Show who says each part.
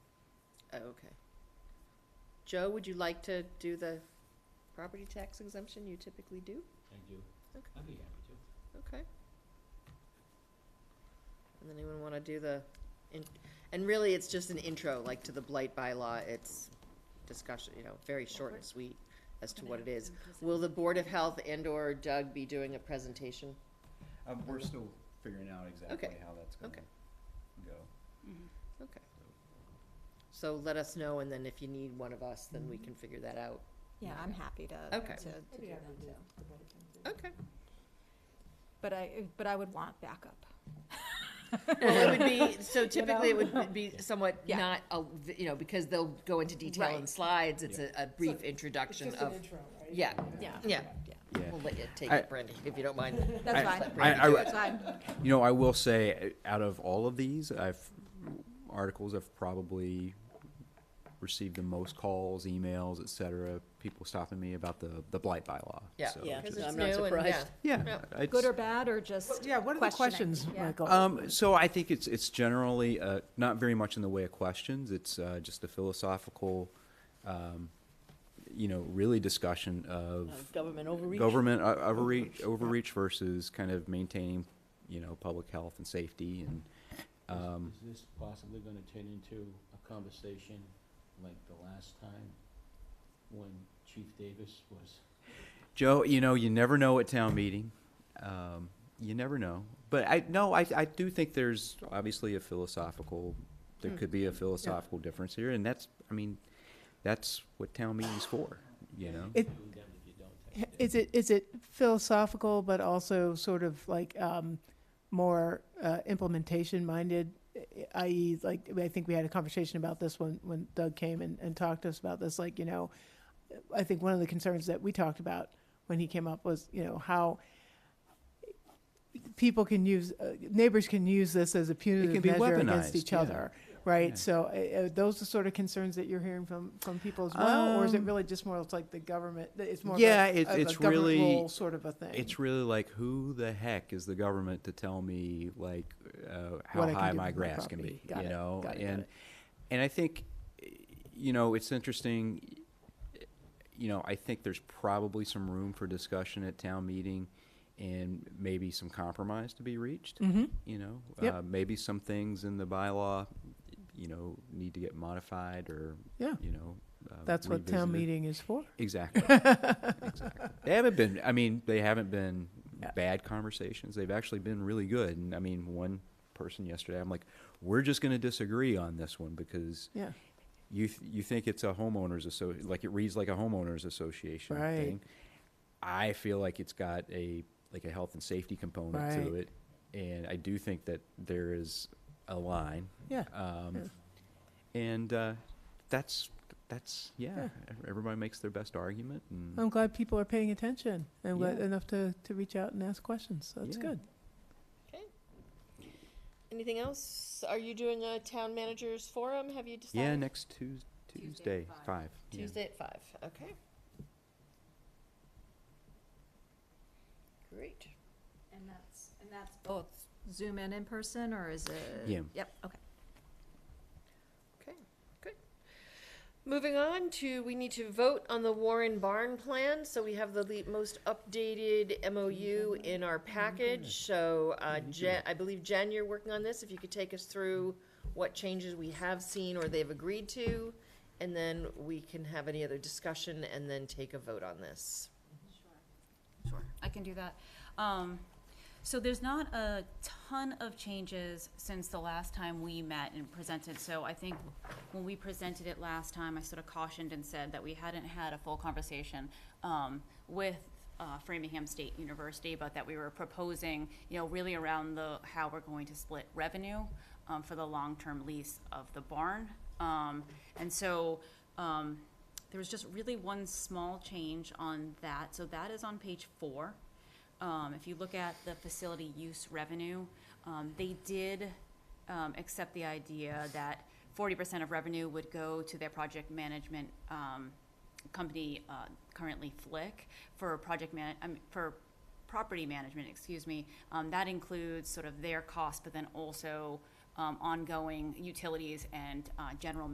Speaker 1: Oh, okay. Joe, would you like to do the property tax exemption you typically do?
Speaker 2: I do.
Speaker 1: Okay.
Speaker 2: I'd be happy to.
Speaker 1: Okay. And then anyone wanna do the, in- and really, it's just an intro, like to the blight bylaw, it's discussion, you know, very short and sweet as to what it is. Will the Board of Health and/or Doug be doing a presentation?
Speaker 3: Um, we're still figuring out exactly how that's gonna
Speaker 1: okay.
Speaker 3: go.
Speaker 1: Okay. So let us know, and then if you need one of us, then we can figure that out.
Speaker 4: Yeah, I'm happy to, to,
Speaker 1: Okay.
Speaker 4: to do
Speaker 5: Yeah,
Speaker 4: that
Speaker 5: we
Speaker 4: too.
Speaker 5: do.
Speaker 1: Okay.
Speaker 4: But I, but I would want backup.
Speaker 1: Well, it would be, so typically it would be somewhat
Speaker 4: Yeah.
Speaker 1: not, a you know, because they'll go into detail in
Speaker 4: Right.
Speaker 1: slides, it's a, a
Speaker 5: So,
Speaker 1: brief
Speaker 5: it's It's
Speaker 1: introduction
Speaker 5: just an
Speaker 1: of,
Speaker 5: intro, right?
Speaker 1: yeah,
Speaker 4: Yeah.
Speaker 1: yeah.
Speaker 6: Yeah.
Speaker 1: We'll let you take
Speaker 6: I-
Speaker 1: it, Brandy, if you don't mind.
Speaker 4: That's
Speaker 6: I-
Speaker 4: fine.
Speaker 6: I- I-
Speaker 4: That's fine.
Speaker 6: You know, I will say, uh, out of all of these, I've, articles have probably received the most calls, emails, et cetera, people stopping me about the, the blight bylaw.
Speaker 1: Yeah.
Speaker 6: So
Speaker 5: Yeah,
Speaker 6: just-
Speaker 5: no, I'm not surprised.
Speaker 6: Yeah. I
Speaker 4: Good or
Speaker 6: just-
Speaker 4: bad or just?
Speaker 5: Yeah, what are the
Speaker 4: questioning?
Speaker 5: questions,
Speaker 4: Yeah.
Speaker 5: Michael?
Speaker 6: Um, so I think it's, it's generally, uh, not very much in the way of questions. It's, uh, just a philosophical, um, you know, really discussion of
Speaker 5: Of Government overreach?
Speaker 6: government o- overreach, overreach versus kind of maintaining, you know, public health and safety and,
Speaker 2: Is-
Speaker 6: um,
Speaker 2: Is this possibly gonna turn into a conversation like the last time when Chief Davis was?
Speaker 6: Joe, you know, you never know at town meeting. Um, you never know. But I no, I I do think there's obviously a philosophical there could be a philosophical difference here and that's I mean, that's what town meeting's for, you know.
Speaker 2: You
Speaker 7: It-
Speaker 2: do that if you don't take
Speaker 7: H-
Speaker 2: it.
Speaker 7: Is it is it philosophical, but also sort of like um, more uh, implementation minded, i.e., like I think we had a conversation about this when when Doug came and, and talked to us about this. Like you know, I think one of the concerns that we talked about when he came up was you know how people can use uh, neighbors can use this as a punitive
Speaker 6: be
Speaker 7: measure against
Speaker 6: weaponized,
Speaker 7: each
Speaker 6: yeah.
Speaker 7: other. Right,
Speaker 6: Yeah.
Speaker 7: so uh, uh, those are sort of concerns that you're hearing from from people as well, or is it
Speaker 6: Um,
Speaker 7: really just more? It's like the government. It's more.
Speaker 6: Yeah,
Speaker 7: of a,
Speaker 6: it-
Speaker 7: of a
Speaker 6: it's
Speaker 7: government
Speaker 6: really-
Speaker 7: role sort of a thing.
Speaker 6: It's really like who the heck is the government to tell me like uh, how
Speaker 7: What I can
Speaker 6: high
Speaker 7: do
Speaker 6: my
Speaker 7: with my
Speaker 6: grass can
Speaker 7: property.
Speaker 6: be,
Speaker 7: Got
Speaker 6: you
Speaker 7: it,
Speaker 6: know?
Speaker 7: got it, got
Speaker 6: and
Speaker 7: it.
Speaker 6: and I think you know, it's interesting you know, I think there's probably some room for discussion at town meeting and maybe some compromise to be reached. You know,
Speaker 7: Mm. Yep.
Speaker 6: uh, maybe some things in the bylaw, you know, need to get modified or,
Speaker 7: Yeah.
Speaker 6: you know, uh,
Speaker 7: That's what town
Speaker 6: revisited.
Speaker 7: meeting is for.
Speaker 6: Exactly. exactly. They haven't been. I mean, they haven't been bad conversations. They've actually been really good. And I mean, one person yesterday, I'm like, we're just going to disagree on this one because
Speaker 7: Yeah.
Speaker 6: you th- you think it's a homeowners asso- like it reads like a homeowners association
Speaker 7: Right.
Speaker 6: thing. I feel like it's got a like a health and safety component to
Speaker 7: Right.
Speaker 6: it, and I do think that there is a line.
Speaker 7: Yeah.
Speaker 6: Um, And uh, that's that's yeah,
Speaker 7: Yeah. Um,
Speaker 6: ev- Everybody makes their best argument, and
Speaker 7: I'm glad people are paying attention and glad
Speaker 6: Yeah.
Speaker 7: enough to, to reach out and ask questions. So that's
Speaker 6: Yeah.
Speaker 7: good.
Speaker 1: Anything else? Are you doing a town managers forum? Have you decided?
Speaker 6: yeah, next Tues- Tuesday,
Speaker 4: Tuesday at five.
Speaker 6: five. yeah.
Speaker 1: Tuesday at five, okay. Great.
Speaker 4: And that's, and that's both Zoom and in person or is it?
Speaker 6: Yeah.
Speaker 4: Yep, okay.
Speaker 1: Okay, good. Moving on to, we need to vote on the Warren Barn plan, so we have the le- most updated MOU in our package, so, uh, Jen, I believe Jen, you're working on this, if you could take us through what changes we have seen or they've agreed to, and then we can have any other discussion and then take a vote on this.
Speaker 8: Sure, I can do that. Um, so there's not a ton of changes since the last time we met and presented, so I think when we presented it last time, I sort of cautioned and said that we hadn't had a full conversation, um, with, uh, Framingham State University, but that we were proposing, you know, really around the, how we're going to split revenue, um, for the long-term lease of the barn. Um, and so, um, there was just really one small change on that, so that is on page four. Um, if you look at the facility use revenue, um, they did, um, accept the idea that forty percent of revenue would go to their project management, um, company, uh, currently Flick, for project man, I mean, for property management, excuse me. Um, that includes sort of their costs, but then also, um, ongoing utilities and, uh, general